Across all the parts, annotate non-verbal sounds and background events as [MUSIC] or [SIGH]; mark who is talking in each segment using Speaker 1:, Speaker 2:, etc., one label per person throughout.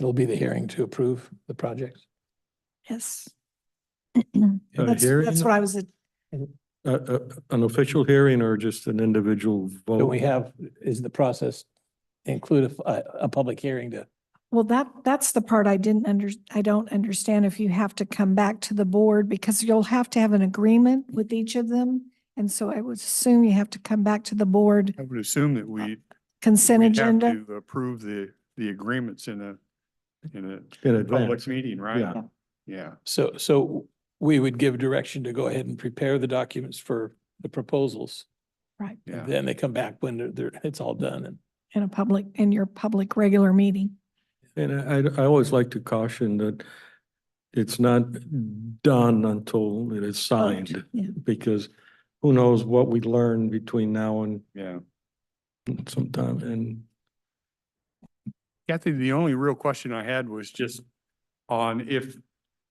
Speaker 1: It'll be the hearing to approve the project.
Speaker 2: Yes.
Speaker 3: Oh,
Speaker 4: A
Speaker 2: That's,
Speaker 4: Uh, hearing?
Speaker 2: that's what I was,
Speaker 4: A, a, an official hearing or just an individual vote?
Speaker 1: Do we have, is the process include a, a, a public hearing to,
Speaker 2: well, that, that's the part I didn't under, I don't understand if you have to come back to the board because you'll have to have an agreement with each of them. And so I would assume you have to come back to the board
Speaker 3: I would assume that we.
Speaker 2: consent
Speaker 3: we have
Speaker 2: agenda.
Speaker 3: to Approve the, the agreements in a, in
Speaker 4: In
Speaker 3: a public
Speaker 4: advance?
Speaker 3: meeting, right?
Speaker 4: Yeah.
Speaker 3: Yeah.
Speaker 1: so, so we would give direction to go ahead and prepare the documents for the proposals.
Speaker 2: Right.
Speaker 1: And
Speaker 3: Yeah.
Speaker 1: Then they come back when they're, they're, it's all done and
Speaker 2: In a public, in your public regular meeting.
Speaker 4: And I, I always like to caution that it's not done until it is signed,
Speaker 2: Yeah.
Speaker 4: because who knows what we learn between now and
Speaker 3: Yeah.
Speaker 4: sometime, and
Speaker 3: Kathy, the only real question I had was just on if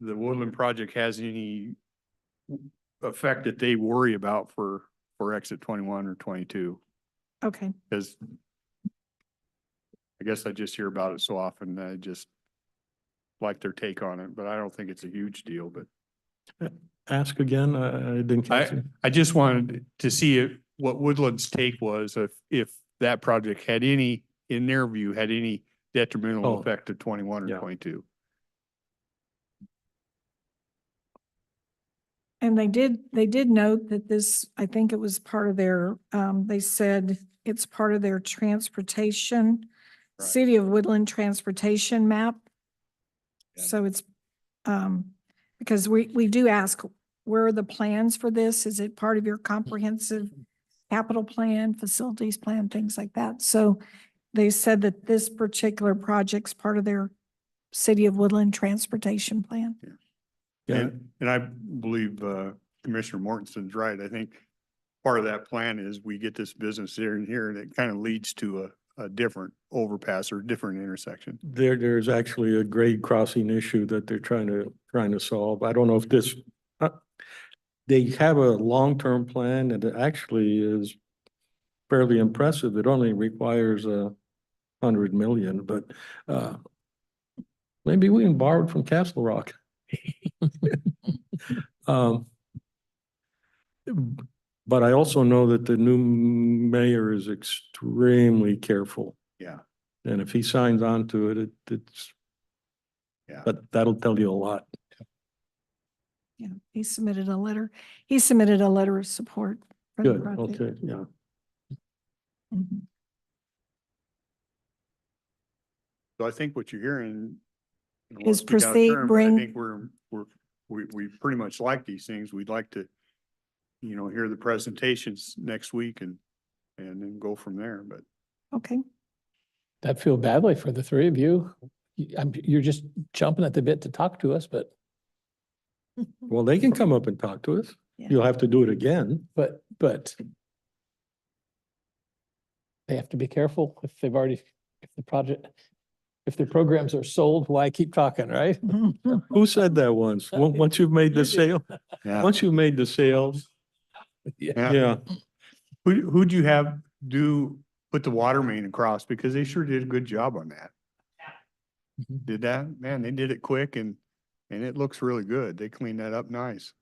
Speaker 3: the Woodland project has any effect that they worry about for, for exit twenty-one or twenty-two,
Speaker 2: Okay.
Speaker 3: because I guess I just hear about it so often, I just like their take on it, but I don't think it's a huge deal, but
Speaker 4: ask again, I, I didn't catch it.
Speaker 3: I just wanted to see if, what Woodland's take was if, if that project had any, in their view, had any
Speaker 4: Oh.
Speaker 3: detrimental effect to twenty-one
Speaker 4: Yeah.
Speaker 3: or twenty-two.
Speaker 2: And they did, they did note that this, I think it was part of their, um, they said it's part of their transportation,
Speaker 3: Right.
Speaker 2: City of Woodland Transportation Map.
Speaker 3: Yeah.
Speaker 2: So it's, um, because we, we do ask, where are the plans for this? Is it part of your comprehensive capital plan, facilities plan, things like that? So they said that this particular project's part of their City of Woodland Transportation Plan.
Speaker 4: Yeah,
Speaker 3: And, and I believe uh, Commissioner Mortensen's right. I think part of that plan is we get this business here and here and it kind of leads to a, a different overpass or different intersection.
Speaker 4: There, there's actually a grade crossing issue that they're trying to, trying to solve. I don't know if this, uh, they have a long-term plan and it actually is fairly impressive. It only requires a hundred million, but, uh, maybe we can borrow it from Castle Rock. [LAUGHS] Um, But I also know that the new mayor is extremely careful.
Speaker 3: Yeah.
Speaker 4: And if he signs on to it, it, it's.
Speaker 3: Yeah.
Speaker 4: But that'll tell you a lot.
Speaker 2: Yeah, he submitted a letter. He submitted a letter of support. for the
Speaker 4: Good,
Speaker 2: project.
Speaker 4: okay, yeah.
Speaker 2: Mhm.
Speaker 3: So I think what you're hearing. I don't wanna
Speaker 2: Is
Speaker 3: speak out of
Speaker 2: proceed,
Speaker 3: turn, but I
Speaker 2: bring-
Speaker 3: think we're, we're, we, we pretty much like these things. We'd like to, you know, hear the presentations next week and, and then go from there, but
Speaker 2: Okay,
Speaker 1: I feel badly for the three of you. You- I'm, you're just jumping at the bit to talk to us, but,
Speaker 4: Well, they can come up and talk to us.
Speaker 2: Yeah.
Speaker 4: You'll have to do it again.
Speaker 1: but, but they have to be careful if they've already, if the project, if their programs are sold, why keep talking, right?
Speaker 4: Who said
Speaker 1: [LAUGHS]
Speaker 4: that once? Once, once you've made the
Speaker 1: You did.
Speaker 4: sale,
Speaker 3: yeah.
Speaker 4: once you've made the sales, yeah,
Speaker 3: Who, who'd you have do, put the water main across? Because they sure did a good job on that.
Speaker 4: Mm-hmm.
Speaker 1: Mhm.
Speaker 3: Did that? Man, they did it quick and, and it looks really good. They cleaned that up nice.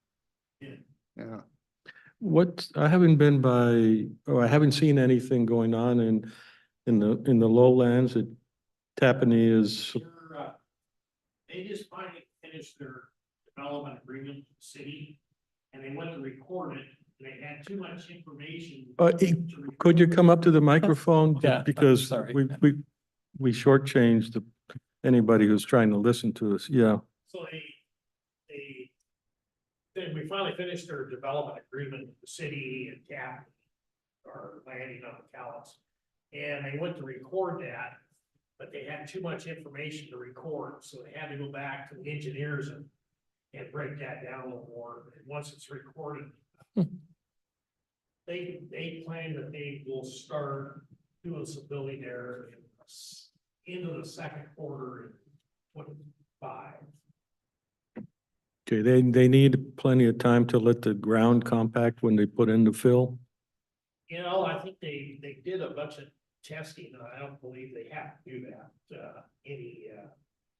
Speaker 3: Yeah.
Speaker 4: What, I haven't been by, or I haven't seen anything going on in, in the, in the lowlands at Tappanee is,
Speaker 5: They're, uh, They just finally finished their development agreement with the city, and they went to record it, and they had too much information.
Speaker 4: Uh,
Speaker 5: to
Speaker 4: it-
Speaker 5: record.
Speaker 4: could you come up to the microphone?
Speaker 1: [LAUGHS] Yeah, I'm
Speaker 4: Because
Speaker 1: sorry.
Speaker 4: we, we, we shortchanged the- anybody who's trying to listen to us, yeah.
Speaker 5: So they, they, then we finally finished their development agreement with the city and cap or landing on the Callis. And they went to record that, but they had too much information to record, so they had to go back to the engineers and and break that down a little more. And once it's recorded, they, they plan that they will start doing some building there in the s- end of the second quarter in twenty-five.
Speaker 4: Okay, they, they need plenty of time to let the ground compact when they put in the fill.
Speaker 5: You know, I think they, they did a bunch of testing, and I don't believe they have to do that, uh, any, uh,